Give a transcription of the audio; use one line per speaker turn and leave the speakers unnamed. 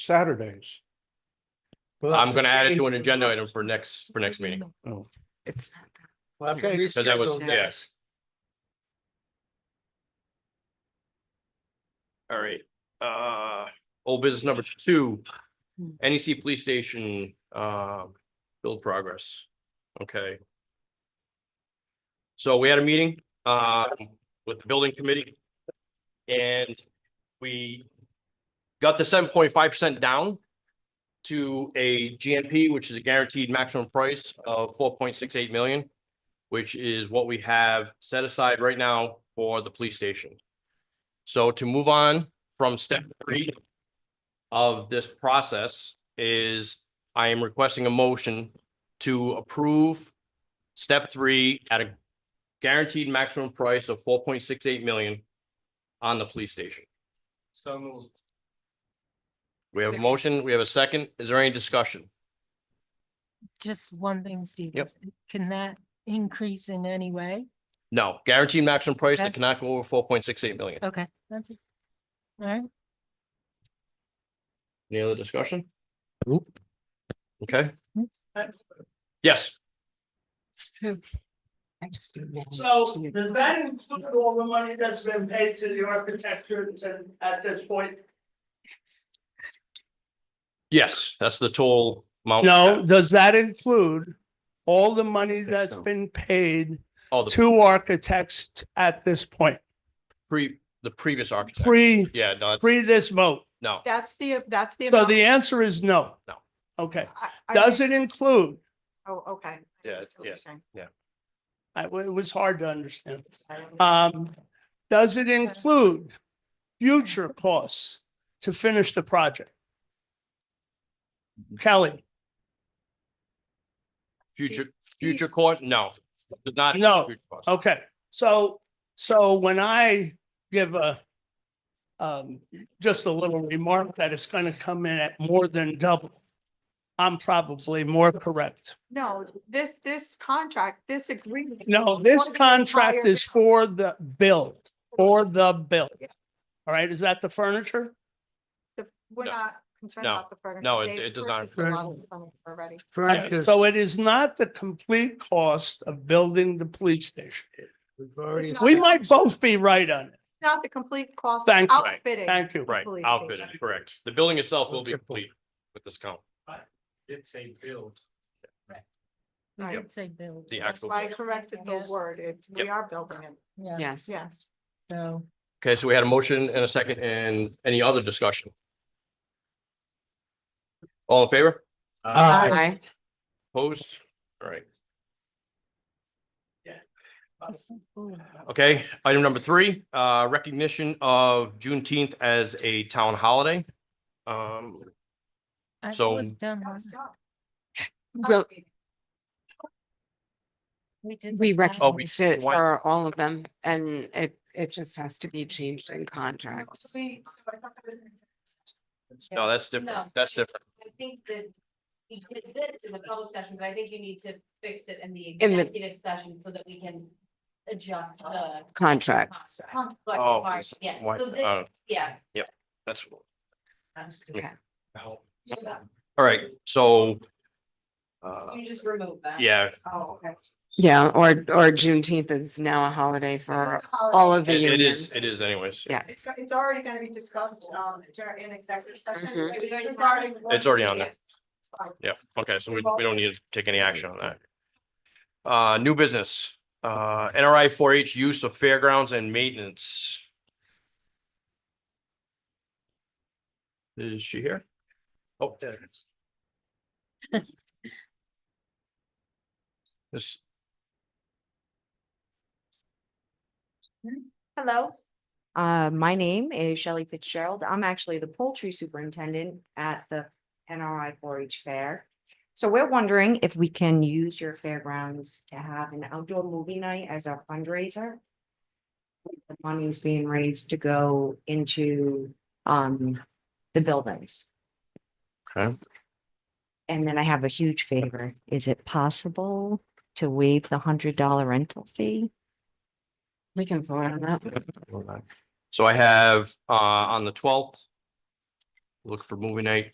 Saturdays. Well,
I'm gonna add it to an agenda item for next, for next meeting,
Oh,
It's not that.
Okay.
because that was, yes. All right, uh, old business number two,
Hmm.
NEC Police Station, uh, build progress. Okay. So we had a meeting, uh, with the building committee. And we got the seven point five percent down to a GMP, which is a guaranteed maximum price of four point six eight million, which is what we have set aside right now for the police station. So to move on from step three of this process is I am requesting a motion to approve step three at a guaranteed maximum price of four point six eight million on the police station.
So moved.
We have a
Second.
motion, we have a second. Is there any discussion?
Just one thing, Steve.
Yep.
is- Can that increase in any way?
No, guaranteed maximum price that
Okay.
cannot go over four point six eight million.
Okay, that's it. All right,
Any other discussion? Okay.
Nope.
Yes,
So I just. imagine
So
you-
does that include all the money that's been paid to the architecture and at this point?
yes, that's the total amount.
No, does that include all the money
Think
that's
so.
been paid
Oh, the
to architects t- at this point,
pre, the previous architect.
pre,
Yeah, no,
pre this vote?
no,
That's the, that's the.
So
amount-
the answer is no.
No.
Okay,
I- I
does it
guess-
include,
Oh, okay. I
Yeah,
understand what you're
yes.
saying.
I- it was hard to understand.
Sorry.
Um, does it include future costs to finish the project? Kelly,
future,
Steve,
future cost, no, did not.
No.
future cost.
okay, so, so when I give a um, just a little remark that it's gonna come in at more than double, I'm probably more correct.
No, this, this contract, this agreement.
No, this
For the
contract
entire-
is for the build, for the build. All right, is that the furniture?
the- We're
No.
not concerned
No.
about the furniture.
No, it-
They've
it does not
purchased a lot of furniture Already.
Uh, So it is not the complete cost of building the police station.
It's not
We
the-
might both be right on it.
Not the complete cost of
Thank you. Right.
outfitting.
Thank you.
Right,
Police
outfitted,
station.
correct. The building itself will be complete with this count.
It's a build.
I
Right.
would say build.
The
That's
actual-
why I corrected the
Yeah.
word. It, we
Yep.
are building it.
Yeah,
Yes.
Yes.
so
Okay, so we had a motion and a second and any other discussion? All in favor?
I,
Opposed? All
Uh,
right.
ooh,
Okay, item number three, uh, recognition of Juneteenth as a town holiday. Um,
I was
So-
done,
That was
wasn't it?
done.
well,
We did.
we
this last-
Oh, we-
recognize it
why-
for all of them and it, it just has to be changed in
No,
contracts.
we- so I thought that was an example.
no, that's different.
No.
That's different.
I think that we did this in the public session, but I think you need to fix it in the
In the-
executive session so that we can adjust the.
Contracts.
contract.
Oh,
Like,
it's-
Yeah,
why-
so this,
uh,
yeah,
That's.
Okay.
All
So that-
right, so. Uh,
you just remove that.
yeah,
Oh, okay.
Yeah, or, or Juneteenth is now a holiday
Oh,
for all of the
it- it is,
unions.
it is anyways.
Yeah.
It's, it's already gonna be discussed, um, dur- in executive session.
Mhm.
We already-
regarding
It's already on there.
Yeah.
Yeah, okay, so we, we don't need to take any action on that. Uh, new business, uh, NRI four H use of fairgrounds and maintenance. Is she here? Oh, there it is. This,
Hello, uh, my name is Shelley Fitzgerald. I'm actually the poultry superintendent at the NRI four H Fair. So we're wondering if we can use your fairgrounds to have an outdoor movie night as a fundraiser. The money's being raised to go into, um, the buildings.
Okay.
And then I have a huge favor. Is it possible to waive the hundred dollar rental fee?
We can vote on that.
so I have, uh, on the twelfth. Look for movie night